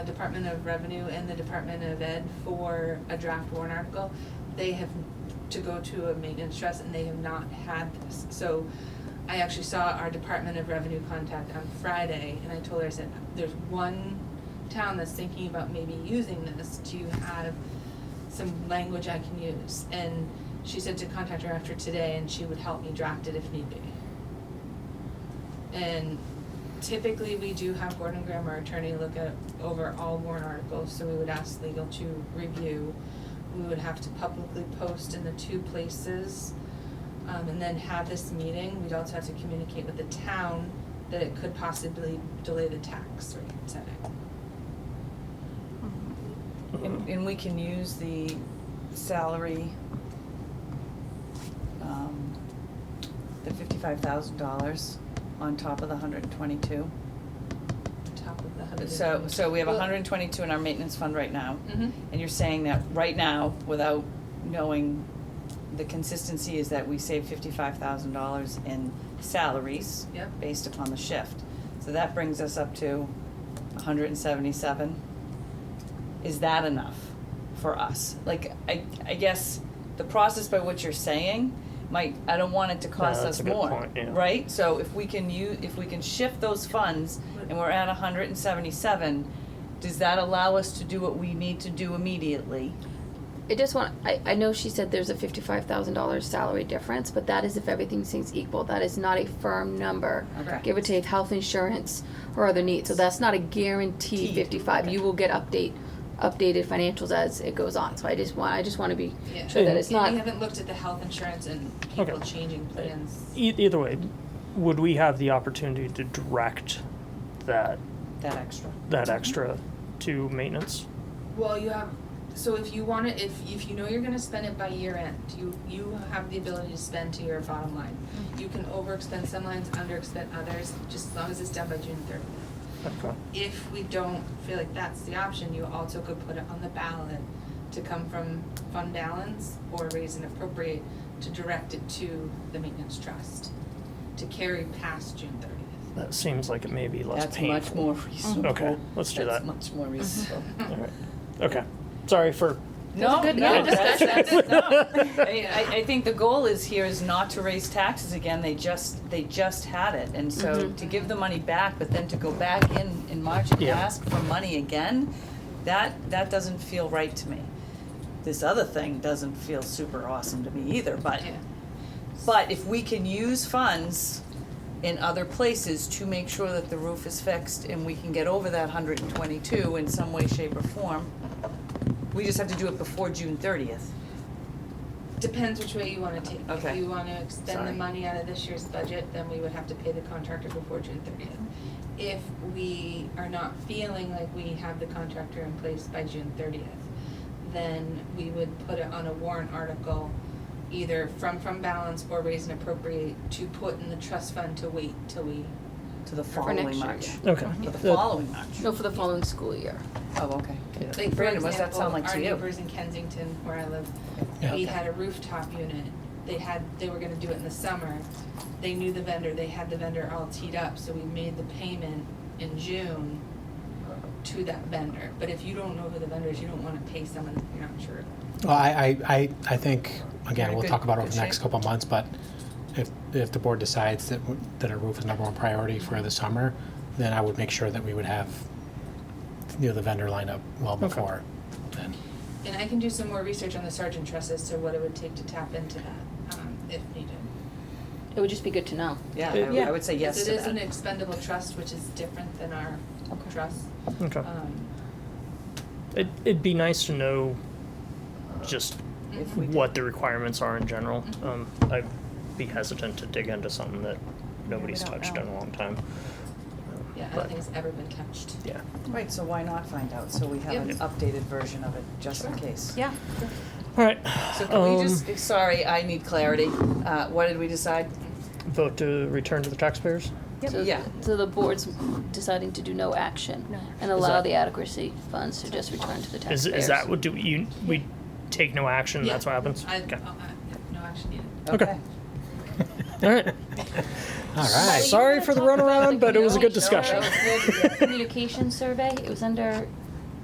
Department of Revenue and the Department of Ed for a draft warrant article. They have to go to a maintenance trust and they have not had this. So I actually saw our Department of Revenue contact on Friday and I told her, I said, there's one town that's thinking about maybe using this. Do you have some language I can use? And she said to contact her after today and she would help me draft it if need be. And typically, we do have Gordon Graham, our attorney, look at, over all warrant articles, so we would ask legal to review. We would have to publicly post in the two places, um, and then have this meeting, we'd also have to communicate with the town that it could possibly delay the tax rate setting. And, and we can use the salary, um, the fifty-five thousand dollars on top of the hundred and twenty-two. on top of the hundred. So, so we have Well- hundred and twenty-two in our maintenance fund right now. Mhm. And you're saying that right now, without knowing the consistency, is that we save fifty-five thousand dollars in salaries Yep. based upon the shift. So that brings us up to hundred and seventy-seven. Is that enough for us? Like, I, I guess the process by what you're saying might, I don't want it to cost Yeah, us that's a good more, right? point, yeah. So if we can use, if we can shift those funds and we're at hundred and seventy-seven, does that allow us to do what we need to do immediately? I just want, I, I know she said there's a fifty-five thousand dollars salary difference, but that is if everything seems equal, that is not a firm number. Okay. Give or take health insurance or other needs, so that's not a guaranteed Teed, fifty-five, okay. you will get update, updated financials as it goes on, so I just want, I just wanna be Yeah. sure that it's And not. we haven't looked at the health insurance and people Okay. changing plans. E- either way, would we have the opportunity to direct that That extra. that extra to maintenance? Well, you have, so if you wanna, if, if you know you're gonna spend it by year end, you, you have the ability to spend to your bottom line. You can overexpend some lines, underexpend others, just as long as it's done by June thirtieth. Okay. If we don't feel like that's the option, you also could put it on the ballot to come from fund balance or raise and appropriate to direct it to the maintenance trust, to carry past June thirtieth. That seems like it may be less That's much painful. more reasonable. Okay, let's do that. That's much Mm-hmm. more reasonable. All right. Okay. Sorry for. No, good- no, yeah, that's, that's- that's, no. I, mean, I, I think the goal is here is not to raise taxes again, they just, they just had it, and so Mhm. to give the money back, but then to go back in, in March and Yeah. ask for money again, that, that doesn't feel right to me. This other thing doesn't feel super awesome to me either, but, but if we can use funds in other places to make sure that the roof is fixed and we can get over that hundred and twenty-two in some way, shape, or form, we just have to do it before June thirtieth. Depends which way you wanna take. If Okay. you wanna expend the Sorry. money out of this year's budget, then we would have to pay the contractor before June thirtieth. If we are not feeling like we have the contractor in place by June thirtieth, then we would put it on a warrant article, either from fund balance or raise and appropriate to put in the trust fund to wait till we. To the For next following year, March. Okay. For the Uh, following March. No, for the following school year. Oh, okay. yeah. Like, for Brandon, what's that example, sound like to our you? neighbors in Kensington where I live, Yeah. we Okay. had a rooftop unit. They had, they were gonna do it in the summer. They knew the vendor, they had the vendor all teed up, so we made the payment in June to that vendor. But if you don't know who the vendor is, you don't wanna pay someone that you're not sure. of. Well, I, I, I, I think, Very again, we'll good- talk about it over good the next shape. couple of months, but if, if the board decides that, w- that a roof is number one priority for the summer, then I would make sure that we would have, you know, the vendor lined up well Okay. before then. And I can do some more research on the sergeant trust as to what it would take to tap into that, um, if needed. It would just be good to know. Yeah, I would- I would say yes Because to it is an that. expendable trust, which is different than our trust. Okay. Um, It, it'd be nice to know just If mm-hmm. we Mm-hmm. do- what the requirements are in general. Um, I'd be hesitant to dig into something that nobody's we don't touched know. in a long time. yeah, I But- don't think it's ever been touched. Yeah. Right, so why not find out, so we have an Yep. updated version of it, just in case. Yeah. All right. So can we um, just, sorry, I need clarity, uh, what did we decide? vote to return to the taxpayers? So- Yeah. So the board's deciding to do no action and allow that- the adequacy funds to just return to the Is, taxpayers. is that what do you we take no action? That's what Yeah. happens. I, okay. oh, I- no action needed. Okay. All right. All right. Sorry for the runaround, but it was a good No, discussion. it was good. Communication survey, it was under